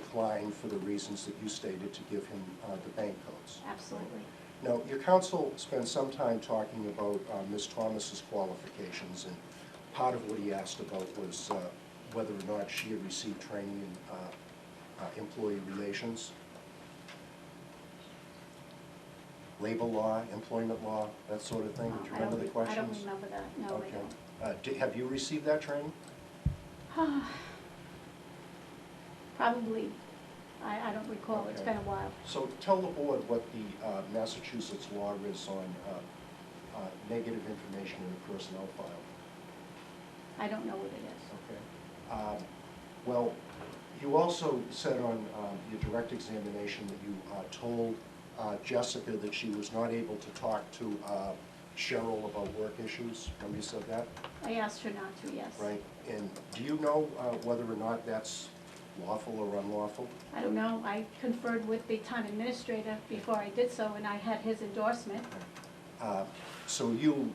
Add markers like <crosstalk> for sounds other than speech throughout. decline for the reasons that you stated to give him uh, the bank codes. Absolutely. Now, your counsel spent some time talking about uh, Ms. Thomas's qualifications, and part of what he asked about was uh, whether or not she had received training in uh, uh, employee relations, labor law, employment law, that sort of thing. Do you I don't remember the re- I don't questions? remember that, no, I Okay. don't. Uh, di- Have you received that training? <sighs> Probably, I, I don't recall, it's Okay. been a while. So tell the board what the uh, Massachusetts law is on uh, uh, negative information in a personnel file. I don't know what it Okay. Um, Well, you also said on um, your direct examination that you uh, told uh, Jessica that she was not able to talk to uh, Cheryl about work issues. Remember you said that, is. I asked her not to, yes. right? And do you know uh, whether or not that's lawful or unlawful? I don't know, I conferred with the town administrator before I did so, and I had his endorsement. Uh, So you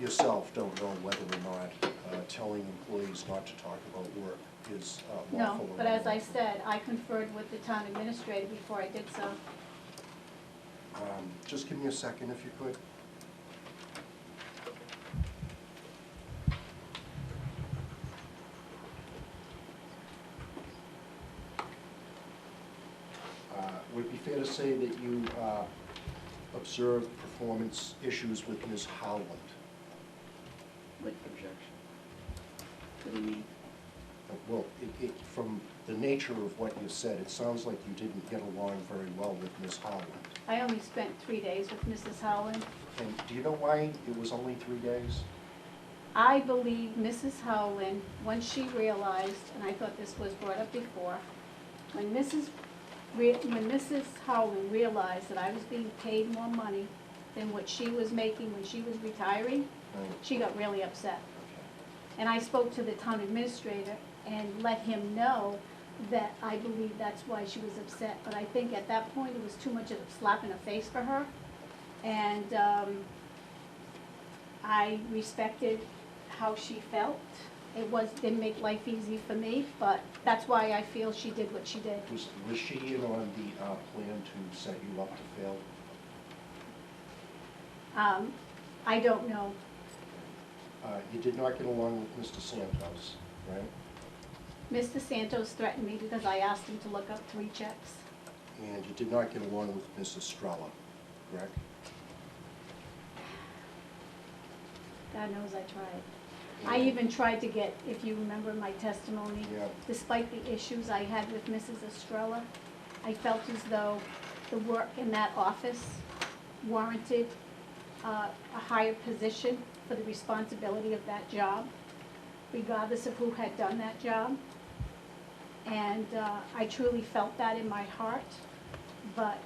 yourself don't know whether or not uh, telling employees not to talk about work is uh, lawful or No, unlawful? but as I said, I conferred with the town administrator before I did so. Um, Just give me a second if you could. Uh, Would it be fair to say that you uh, observed performance issues with Ms. Howland? What Objection. what do you mean? Well, it, it, from the nature of what you said, it sounds like you didn't get along very well with Ms. Howland. I only spent three days with Mrs. Howland. And do you know why it was only three days? I believe Mrs. Howland, once she realized, and I thought this was brought up before, when Mrs., re- when Mrs. Howland realized that I was being paid more money than what she was making when she was retiring, Right, she got really upset. okay. And I spoke to the town administrator and let him know that I believe that's why she was upset. But I think at that point, it was too much of a slap in the face for her. And um, I respected how she felt. It was, didn't make life easy for me, but that's why I feel she did what she did. Was, was she in on the uh, plan to set you up to fail? Um, I don't know. Uh, You did not get along with Mr. Santos, right? Mr. Santos threatened me because I asked him to look up three checks. And you did not get along with Ms. Estrella, correct? God knows I tried. I even tried to get, if you remember my testimony, Yeah. despite the issues I had with Mrs. Estrella, I felt as though the work in that office warranted uh, a higher position for the responsibility of that job, regardless of who had done that job. And uh, I truly felt that in my heart, but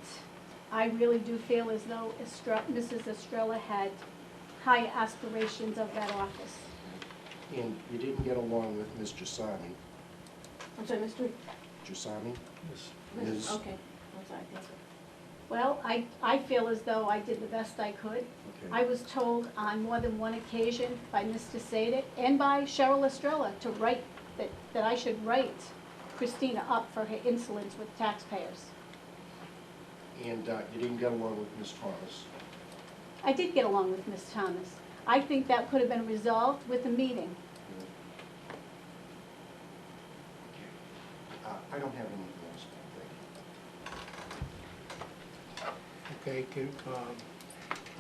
I really do feel as though Estre- Mrs. Estrella had high aspirations of that office. And you didn't get along with Ms. Jasami, I'm sorry, Mr. Jasami? Mr. Ms. Okay, I'm sorry, thank you. Well, I, I feel as though I did the best I could. I Okay. was told on more than one occasion by Mr. Sadek and by Cheryl Estrella to write, that, that I should write Christina up for her insolence with taxpayers. And uh, you didn't get along with Ms. Thomas? I did get along with Ms. Thomas. I think that could have been resolved with a meeting. Okay. Uh, I don't have anything else, thank you. Okay, can, um,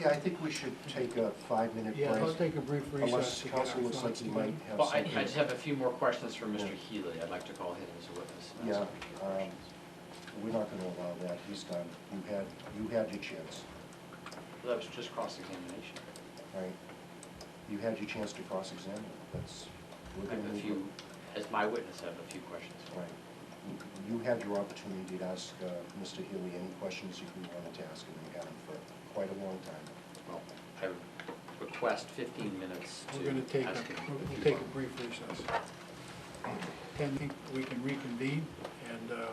Yeah, I think we should take a five-minute break. yeah, I'll take a brief recess. Unless to get council our looks like thoughts he might together. have Well, I, something. I just have a few more questions for Mr. Yeah. Healy. I'd like to call him as a witness. and ask Yeah, him a few um, questions. We're not gonna allow that, he's done. You had, you had your chance, um, That was just cross-examination. right? You had your chance to cross-examine, that's, we're I have gonna a move few, it. as my witness, I have a few questions. Right. You- You had your opportunity to ask uh, Mr. Healy any questions you wanted to ask, and you had him for quite a long time. Well, I would request fifteen minutes We're gonna to take, a- ask him. we'll if we'll he take wants. a brief recess. And think we can reconvene, and, uh,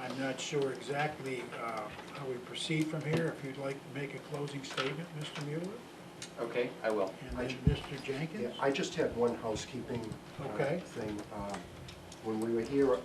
I'm not sure exactly, uh, how we proceed from here, if you'd like to make a closing statement, Mr. Mueller, Okay, I will. and then Mr. Jenkins? Yeah, I just had one housekeeping uh, Okay. thing. Uh, when we were here